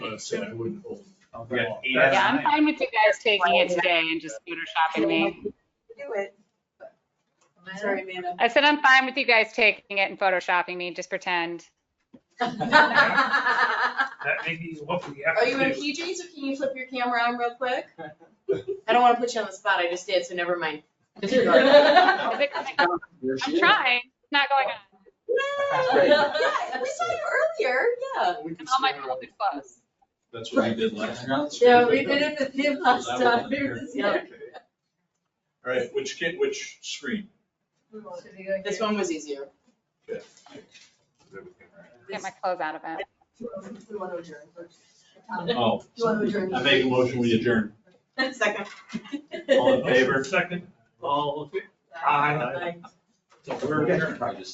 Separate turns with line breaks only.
I said I wouldn't hold.
We got eight out of
Yeah, I'm
nine.
fine with you guys taking it today and just photoshopping me.
Do it. Sorry, Amanda.
I said I'm fine with you guys taking it and photoshopping me, just pretend.
Are
That may be what we have
you in
to do.
PJs or can you flip your camera on real quick? I don't want to put you on the spot. I just did, so never mind. Disregard.
Is it coming? I'm trying, it's not going on.
Yeah, yeah, we saw you earlier, yeah.
And all my COVID clothes.
That's what we did last. time.
Yeah, we did it with him last time. We were just- yeah.
All right, which kid, which screen?
This one was easier.
Get my clothes out of it.
We want to adjourn first.
Oh,
You want to adjourn?
I make a motion, we adjourn.
Second.
All in favor?
Second, all,
Aye.
so we're adjourned.